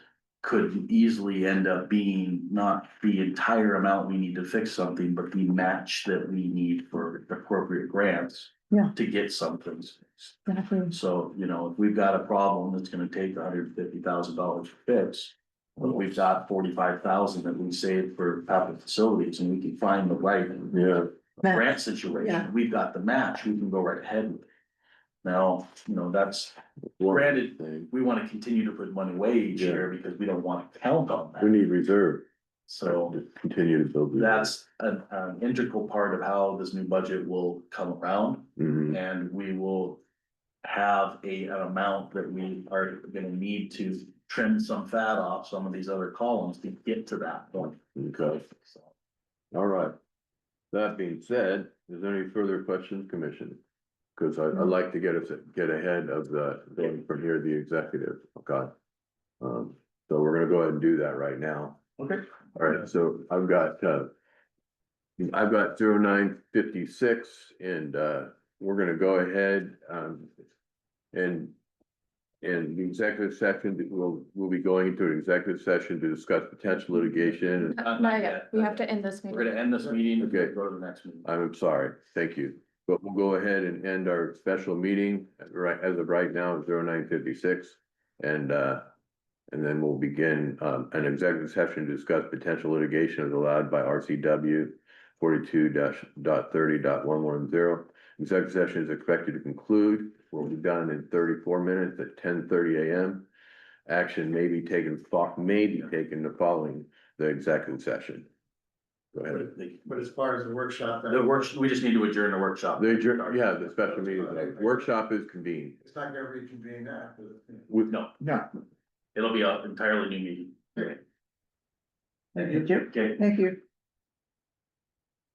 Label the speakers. Speaker 1: could easily end up being not the entire amount we need to fix something, but the match that we need for appropriate grants.
Speaker 2: Yeah.
Speaker 1: To get some things fixed.
Speaker 2: Exactly.
Speaker 1: So, you know, if we've got a problem that's gonna take hundred and fifty thousand dollars to fix. But we've got forty-five thousand that we saved for public facilities and we can find the right
Speaker 3: Yeah,
Speaker 1: grant
Speaker 2: Yeah.
Speaker 1: situation, we've got the match, we can go right ahead with it. Now, you know, that's,
Speaker 3: one
Speaker 1: granted,
Speaker 3: thing,
Speaker 1: we wanna continue to put money away each
Speaker 3: Yeah.
Speaker 1: year because we don't wanna count on
Speaker 3: we
Speaker 1: that.
Speaker 3: need reserve,
Speaker 1: So
Speaker 3: to continue to build. reserve.
Speaker 1: that's an, an integral part of how this new budget will come around
Speaker 3: Mhm.
Speaker 1: and we will. Have a, an amount that we are gonna need to trim some fat off some of these other columns to get to that point.
Speaker 3: Okay,
Speaker 1: So,
Speaker 3: all right. That being said, is there any further questions, commission? Cause I, I'd like to get us, get ahead of the, going from here, the executive, okay? Um, so we're gonna go ahead and do that right now.
Speaker 1: Okay.
Speaker 3: All right, so I've got, uh. I've got zero nine fifty-six and, uh, we're gonna go ahead, um. And. And the executive session, we'll, we'll be going into an executive session to discuss potential litigation.
Speaker 1: Not-
Speaker 2: Uh, Not yet, we have to end this
Speaker 1: We're
Speaker 2: meeting.
Speaker 1: gonna end this meeting, and
Speaker 3: Okay. Uh,
Speaker 1: go to the next meeting.
Speaker 3: I'm sorry, thank you, but we'll go ahead and end our special meeting, at right, as of right now, zero nine fifty-six. And, uh, and then we'll begin, um, an executive session to discuss potential litigation as allowed by RCW forty-two dash dot thirty dot one one zero. Executive session is expected to conclude, will be done in thirty-four minutes at ten thirty AM. Action may be taken, fo- may be taken the following the executive session. Go ahead.
Speaker 1: The-
Speaker 4: But as far as the workshop,
Speaker 1: The work, we just need to adjourn the workshop.
Speaker 3: The, adjourn- yeah, the special meeting, the workshop is convened.
Speaker 4: it's not gonna reconvene after the. meeting.
Speaker 3: With,
Speaker 1: No,
Speaker 5: No,
Speaker 1: it'll be an entirely new meeting.
Speaker 5: thank you,
Speaker 1: Okay,
Speaker 5: thank you.